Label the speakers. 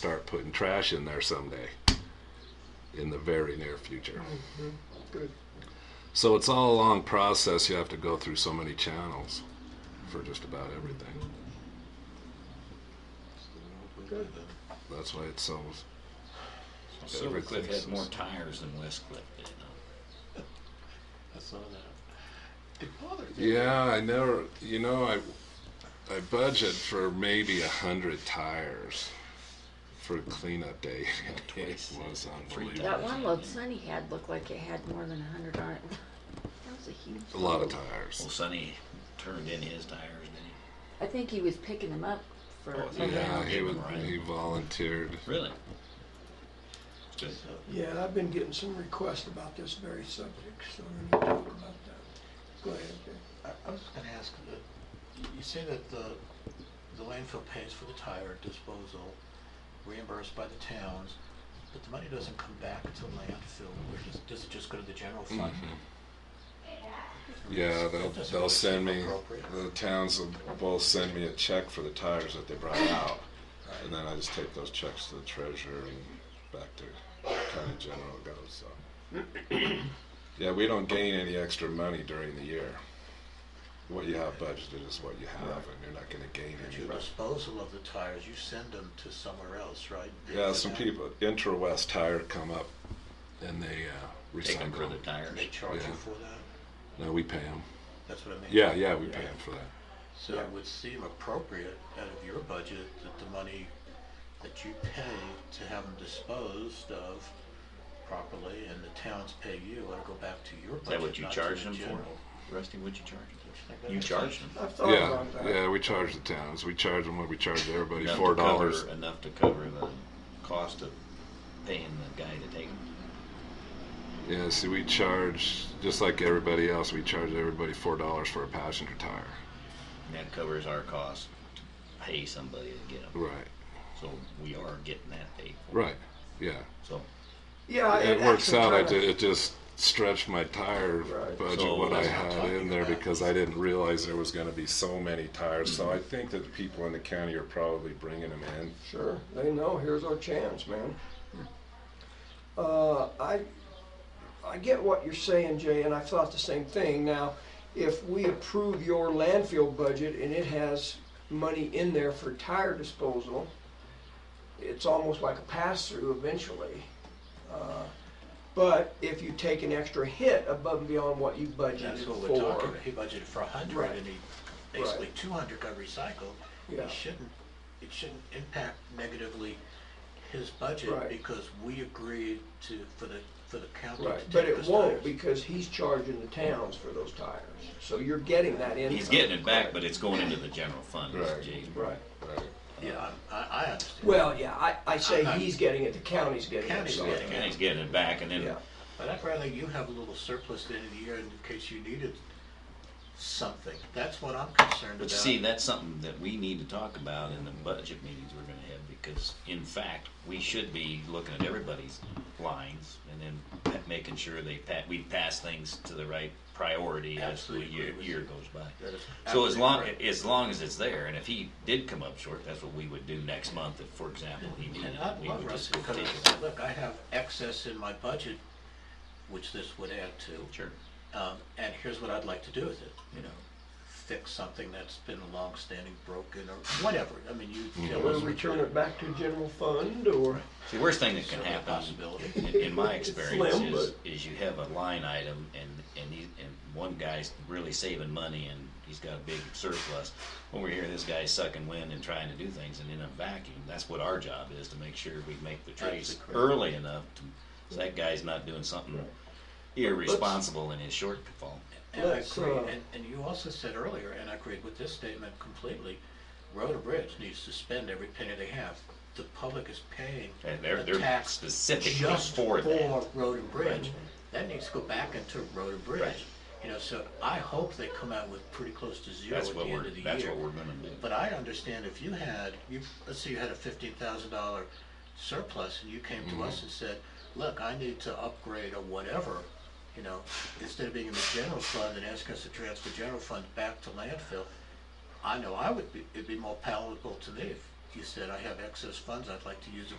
Speaker 1: start putting trash in there someday in the very near future.
Speaker 2: Good.
Speaker 1: So it's all a long process. You have to go through so many channels for just about everything.
Speaker 2: Good.
Speaker 1: That's why it's so.
Speaker 3: Silvercliff
Speaker 1: Everything's-
Speaker 3: had more tires than Westcliff did. huh?
Speaker 4: I saw that.
Speaker 2: It bothers me.
Speaker 1: Yeah, I never. You know, I I budget for maybe a hundred tires for cleanup day. it
Speaker 3: Twice.
Speaker 1: was
Speaker 3: Three
Speaker 1: unbelievable.
Speaker 3: times.
Speaker 5: That one load Sunny had looked like it had more than a hundred on it. That was a huge.
Speaker 1: A lot of
Speaker 5: load.
Speaker 3: Well,
Speaker 1: tires.
Speaker 3: Sonny turned in his tires, didn't he?
Speaker 5: I think he was picking them up for.
Speaker 3: Oh, yeah.
Speaker 1: Yeah, he was,
Speaker 3: Right.
Speaker 1: he volunteered.
Speaker 3: Really? Good.
Speaker 2: Yeah, I've been getting some requests about this very subject, so we're gonna talk about that. Go ahead, Jay.
Speaker 4: I, I was just gonna ask, uh, you say that the, the landfill pays for the tire disposal, reimbursed by the towns, but the money doesn't come back to landfill, which is, does it just go to the general fund?
Speaker 1: Mm-hmm. Yeah, they'll,
Speaker 4: Doesn't
Speaker 1: they'll
Speaker 4: really
Speaker 1: send
Speaker 4: seem
Speaker 1: me,
Speaker 4: appropriate.
Speaker 1: the towns will both send me a check for the tires that they brought out. Uh, And then I just take those checks to the treasurer and back to county general it goes, so. Yeah, we don't gain any extra money during the year. What you have budgeted is what you have, and you're not gonna gain
Speaker 4: But
Speaker 1: any.
Speaker 4: your disposal of the tires, you send them to somewhere else, right?
Speaker 1: Yeah, some people, Interwest Tire come up and they, uh,
Speaker 3: Take him for the
Speaker 1: recycle.
Speaker 3: tires.
Speaker 4: They charge
Speaker 1: Yeah.
Speaker 4: you for that?
Speaker 1: No, we pay them.
Speaker 4: That's what I mean.
Speaker 1: Yeah, yeah, we pay them for that.
Speaker 4: So it would seem appropriate out of your budget that the money that you pay to have them disposed of properly and the towns pay you ought to go back to your budget.
Speaker 3: Is that what you
Speaker 4: not to
Speaker 3: charged
Speaker 4: the
Speaker 3: him for?
Speaker 4: general.
Speaker 3: Rusty, what'd you charge him
Speaker 4: Like
Speaker 3: for?
Speaker 4: that.
Speaker 3: You charged him.
Speaker 2: I've thought
Speaker 1: Yeah,
Speaker 2: about that.
Speaker 1: yeah, we charge the towns. We charge them what we charge everybody,
Speaker 3: Enough to
Speaker 1: four dollars.
Speaker 3: cover- Enough to cover the cost of paying the guy to take him.
Speaker 1: Yeah, see, we charge just like everybody else. We charge everybody four dollars for a passenger tire.
Speaker 3: And that covers our cost to pay somebody to get him.
Speaker 1: Right,
Speaker 3: So we are getting that paid for.
Speaker 1: right, yeah.
Speaker 3: So
Speaker 2: Yeah,
Speaker 1: It works
Speaker 2: Uh, actually
Speaker 1: out. I
Speaker 2: kinda-
Speaker 1: ju- it just stretched my tire
Speaker 2: Right.
Speaker 1: budget
Speaker 3: So
Speaker 1: what I
Speaker 3: that's what
Speaker 4: I'm
Speaker 1: had
Speaker 4: talking
Speaker 1: in there
Speaker 4: about.
Speaker 1: because I didn't realize there was going to be so many tires.
Speaker 3: Mm-hmm.
Speaker 1: So I think that the people in the county are probably bringing them in.
Speaker 2: Sure, they know, here's our chance, man. Uh, I, I get what you're saying, Jay, and I thought the same thing. Now, if we approve your landfill budget and it has money in there for tire disposal, it's almost like a pass-through eventually. Uh, But if you take an extra hit above and beyond what you budgeted
Speaker 4: That's what
Speaker 2: for.
Speaker 4: we're talking about. He budgeted for a hundred
Speaker 2: Right.
Speaker 4: and he, basically
Speaker 2: Right.
Speaker 4: two hundred got recycled.
Speaker 2: Yeah.
Speaker 4: It shouldn't, it shouldn't impact negatively his budget
Speaker 2: Right.
Speaker 4: because we agreed to, for the, for the county to
Speaker 2: Right,
Speaker 4: take
Speaker 2: but it
Speaker 4: those
Speaker 2: won't
Speaker 4: tires.
Speaker 2: because he's charging the towns for those tires. So you're getting that income.
Speaker 3: he's getting it back, but it's going into the general fund. is
Speaker 1: Right.
Speaker 3: Jay's-
Speaker 2: Right.
Speaker 1: Right.
Speaker 4: Yeah, I'm- I, I understand.
Speaker 2: Well, yeah, I, I say
Speaker 4: Uh-huh.
Speaker 2: he's getting it, the county's getting it.
Speaker 4: County's
Speaker 2: so-
Speaker 4: getting
Speaker 3: And he's getting it back and
Speaker 2: Yeah,
Speaker 3: then
Speaker 4: But I'd rather you have a little surplus at the end of the year in case you needed something. That's what I'm concerned about.
Speaker 3: But you see, that's something that we need to talk about in the budget meetings we're gonna have, because in fact, we should be looking at everybody's lines and then pa- making sure they pa, we pass things to the right priority as the
Speaker 4: Absolutely agree
Speaker 3: year,
Speaker 4: with
Speaker 3: year
Speaker 4: you.
Speaker 3: goes by.
Speaker 4: That is
Speaker 3: So as
Speaker 4: absolutely
Speaker 3: long,
Speaker 4: correct.
Speaker 3: as long as it's there, and if he did come up short, that's what we would do next month, if, for example, he needed,
Speaker 4: And I'd
Speaker 3: we
Speaker 4: love
Speaker 3: would
Speaker 4: Russ
Speaker 3: just
Speaker 4: to
Speaker 3: go
Speaker 4: come
Speaker 3: take
Speaker 4: and
Speaker 3: it.
Speaker 4: say, look, I have excess in my budget, which this would add to.
Speaker 3: Sure,
Speaker 4: Um, and here's what I'd like to do with it, you
Speaker 3: you
Speaker 4: know,
Speaker 3: know,
Speaker 4: fix something that's been long-standing, broken, or whatever. I mean, you tell
Speaker 2: we'll
Speaker 4: us.
Speaker 2: return it back to general fund or,
Speaker 3: see, worst thing that can
Speaker 4: Certainly a
Speaker 3: happen
Speaker 4: possibility.
Speaker 3: in, in my experience
Speaker 2: Slim,
Speaker 3: is, is you have a line item and and these and one guy's really saving money and he's got a big surplus. Over here, this guy's sucking wind and trying to do things and in a vacuum. That's what our job is to make sure we make the trades
Speaker 4: Absolutely correct.
Speaker 3: early enough to, so that guy's not doing something irresponsible in his shortfall.
Speaker 4: And I
Speaker 2: Let's,
Speaker 4: agree,
Speaker 2: uh,
Speaker 4: and, and you also said earlier, and I agreed with this statement completely, Road and Bridge needs to spend every penny they have. The public is paying
Speaker 3: And they're
Speaker 4: the
Speaker 3: they're
Speaker 4: tax
Speaker 3: specific
Speaker 4: just
Speaker 3: for that.
Speaker 4: Road and Bridge.
Speaker 3: Right.
Speaker 4: That needs to go back into Road and Bridge.
Speaker 3: Right.
Speaker 4: You know, so I hope they come out with pretty close to zero at
Speaker 3: That's
Speaker 4: the
Speaker 3: what
Speaker 4: end
Speaker 3: we're
Speaker 4: of the year.
Speaker 3: that's what we're gonna do.
Speaker 4: But I understand if you had, you, let's say you had a fifteen thousand dollar surplus and you came to us and said, look, I need to upgrade or whatever, you know, instead of being in the general fund and asking us to transfer general fund back to landfill, I know I would be, it'd be more palatable to me if you said, I have excess funds, I'd like to use it